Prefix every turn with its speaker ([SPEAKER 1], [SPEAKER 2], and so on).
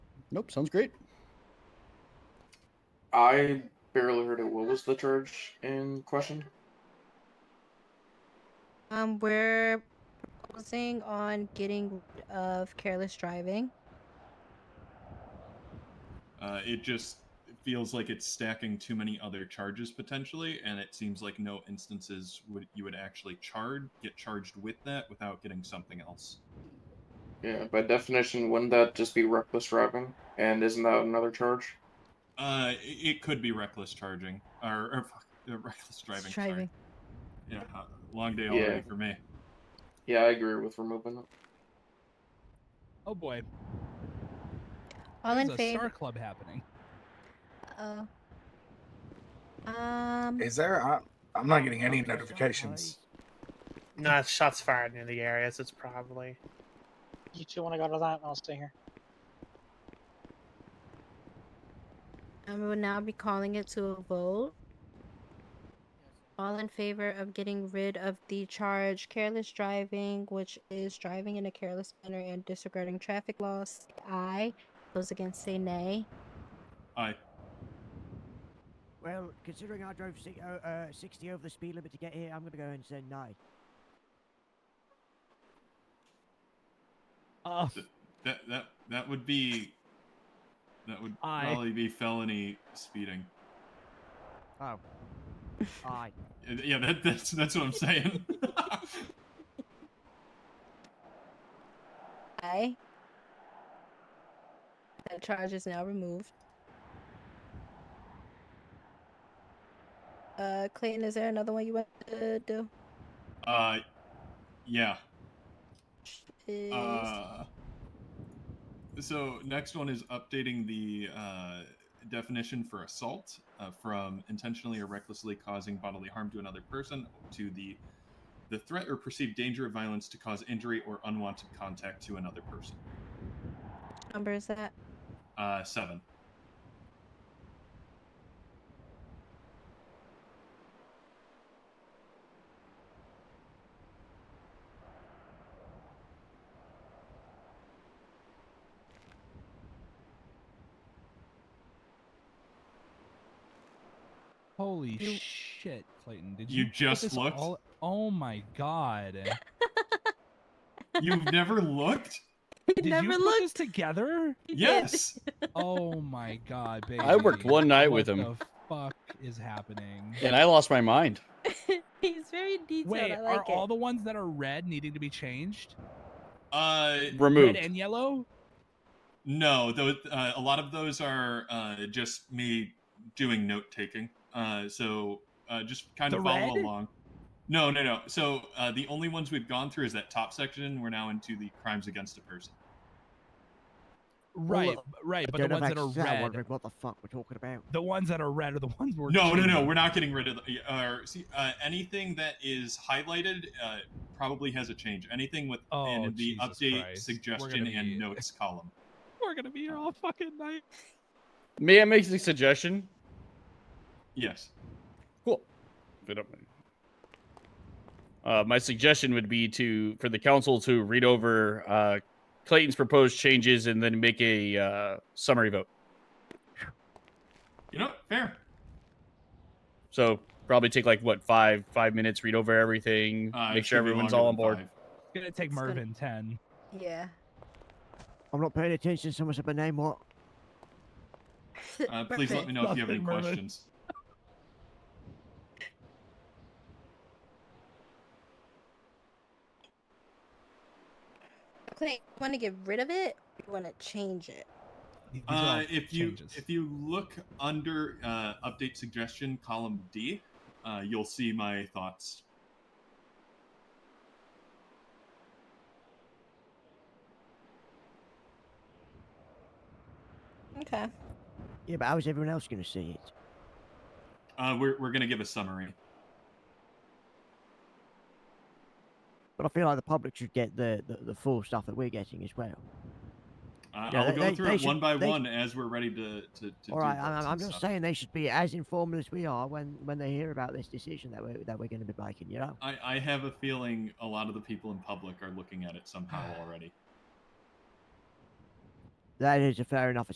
[SPEAKER 1] Nope, sounds great.
[SPEAKER 2] I barely heard it. What was the charge in question?
[SPEAKER 3] Um, we're proposing on getting rid of careless driving.
[SPEAKER 4] Uh, it just feels like it's stacking too many other charges potentially, and it seems like no instances would you would actually charge get charged with that without getting something else.
[SPEAKER 2] Yeah, by definition, wouldn't that just be reckless driving? And isn't that another charge?
[SPEAKER 4] Uh, i- it could be reckless charging or, or fuck, uh, reckless driving. sorry.
[SPEAKER 3] Driving.
[SPEAKER 4] Yeah, uh, long day already
[SPEAKER 2] Yeah.
[SPEAKER 4] for me.
[SPEAKER 2] Yeah, I agree with removing it.
[SPEAKER 5] Oh boy,
[SPEAKER 3] All
[SPEAKER 5] there's
[SPEAKER 3] in
[SPEAKER 5] a
[SPEAKER 3] favor.
[SPEAKER 5] Star Club happening.
[SPEAKER 3] Oh. Um.
[SPEAKER 6] Is there? I, I'm not getting any notifications.
[SPEAKER 7] No, it's shots fired near the areas. It's probably.
[SPEAKER 8] You two want to go to that? I'll stay here.
[SPEAKER 3] I will now be calling it to a vote. All in favor of getting rid of the charge careless driving, which is driving in a careless manner and disregarding traffic laws, say aye. Those against say nay.
[SPEAKER 4] I
[SPEAKER 9] Well, considering I drove si- uh, uh, 60 over the speed limit to get here, I'm going to go and say no.
[SPEAKER 5] Uh,
[SPEAKER 4] that that that would be that would
[SPEAKER 5] Aye.
[SPEAKER 4] probably be felony speeding.
[SPEAKER 9] Oh. Aye.
[SPEAKER 4] Uh, Yeah, that, that's that's what I'm saying.
[SPEAKER 3] Aye. That charge is now removed. Uh, Clayton, is there another one you want to do?
[SPEAKER 4] uh, yeah.
[SPEAKER 3] Is-
[SPEAKER 4] Uh, so next one is updating the uh, definition for assault uh, from intentionally or recklessly causing bodily harm to another person to the the threat or perceived danger of violence to cause injury or unwanted contact to another person.
[SPEAKER 3] number is that?
[SPEAKER 4] Uh, seven.
[SPEAKER 5] holy
[SPEAKER 3] You-
[SPEAKER 5] shit, Clayton! Did
[SPEAKER 4] You
[SPEAKER 5] you, put
[SPEAKER 4] just
[SPEAKER 5] this
[SPEAKER 4] looked?
[SPEAKER 5] all- oh my god!
[SPEAKER 4] You've never looked?
[SPEAKER 3] He
[SPEAKER 5] Did
[SPEAKER 3] never
[SPEAKER 5] you put
[SPEAKER 3] looked.
[SPEAKER 5] this together?
[SPEAKER 4] Yes.
[SPEAKER 5] Oh my god, baby!
[SPEAKER 1] I worked one night with
[SPEAKER 5] What
[SPEAKER 1] him,
[SPEAKER 5] The fuck is happening?
[SPEAKER 1] and I lost my mind.
[SPEAKER 3] He's very detailed.
[SPEAKER 5] Wait,
[SPEAKER 3] I like
[SPEAKER 5] are
[SPEAKER 3] it.
[SPEAKER 5] all the ones that are red needing to be changed?
[SPEAKER 4] Uh,
[SPEAKER 1] Removed.
[SPEAKER 5] Red and yellow?
[SPEAKER 4] no. Though uh, a lot of those are uh, just me doing note taking. Uh, so uh, just kind of
[SPEAKER 5] The
[SPEAKER 4] follow
[SPEAKER 5] red?
[SPEAKER 4] along. No, no, no. So uh, the only ones we've gone through is that top section. We're now into the crimes against a person.
[SPEAKER 5] Right,
[SPEAKER 9] look,
[SPEAKER 5] right. But
[SPEAKER 9] I
[SPEAKER 5] the
[SPEAKER 9] don't know
[SPEAKER 5] ones that
[SPEAKER 9] if
[SPEAKER 5] are
[SPEAKER 9] actually- I'm
[SPEAKER 5] red,
[SPEAKER 9] wondering what the fuck we're talking about.
[SPEAKER 5] the ones that are red are the ones we're
[SPEAKER 4] no, no, no.
[SPEAKER 5] changing.
[SPEAKER 4] We're not getting rid of the, or see uh, anything that is highlighted. Uh, probably has a change. Anything with
[SPEAKER 5] Oh,
[SPEAKER 4] in the
[SPEAKER 5] Jesus
[SPEAKER 4] update
[SPEAKER 5] Christ. We're
[SPEAKER 4] suggestion
[SPEAKER 5] gonna
[SPEAKER 4] and
[SPEAKER 5] be-
[SPEAKER 4] notes column.
[SPEAKER 5] We're gonna be here all fucking night.
[SPEAKER 1] May I make a suggestion?
[SPEAKER 4] Yes.
[SPEAKER 1] Cool. If you don't mind. Uh, my suggestion would be to for the council to read over uh, Clayton's proposed changes and then make a uh, summary vote.
[SPEAKER 4] You know, fair.
[SPEAKER 1] So probably take like what five five minutes, read over everything,
[SPEAKER 4] Uh,
[SPEAKER 1] make
[SPEAKER 4] it
[SPEAKER 1] sure
[SPEAKER 4] should be
[SPEAKER 1] everyone's
[SPEAKER 4] longer
[SPEAKER 1] all
[SPEAKER 4] than
[SPEAKER 1] on board.
[SPEAKER 4] five.
[SPEAKER 5] It's gonna take
[SPEAKER 3] It's gonna-
[SPEAKER 5] Mervin ten.
[SPEAKER 3] Yeah.
[SPEAKER 9] I'm not paying attention. Someone said my name, what?
[SPEAKER 4] Uh, please let me know if you have any
[SPEAKER 5] Nothing, Mervin.
[SPEAKER 4] questions.
[SPEAKER 3] Clay, you want to get rid of it? or You want to change it?
[SPEAKER 5] These are all
[SPEAKER 4] Uh, if you
[SPEAKER 5] changes.
[SPEAKER 4] if you look under uh, update suggestion column D, uh, you'll see my thoughts.
[SPEAKER 3] Okay.
[SPEAKER 9] Yeah, but how's everyone else going to see it?
[SPEAKER 4] Uh, we're we're gonna give a summary.
[SPEAKER 9] But I feel like the public should get the, the, the full stuff that we're getting as well.
[SPEAKER 4] Uh,
[SPEAKER 9] Yeah,
[SPEAKER 4] I'll
[SPEAKER 9] they-
[SPEAKER 4] go
[SPEAKER 9] they-
[SPEAKER 4] through
[SPEAKER 9] they
[SPEAKER 4] it one
[SPEAKER 9] should-
[SPEAKER 4] by
[SPEAKER 9] they-
[SPEAKER 4] one as we're ready to to. to do
[SPEAKER 9] All right,
[SPEAKER 4] votes
[SPEAKER 9] I'm,
[SPEAKER 4] and
[SPEAKER 9] I'm just
[SPEAKER 4] stuff.
[SPEAKER 9] saying they should be as informed as we are when, when they hear about this decision that we're, that we're going to be making, you know?
[SPEAKER 4] I, I have a feeling a lot of the people in public are looking at it somehow already.
[SPEAKER 9] That is a fair enough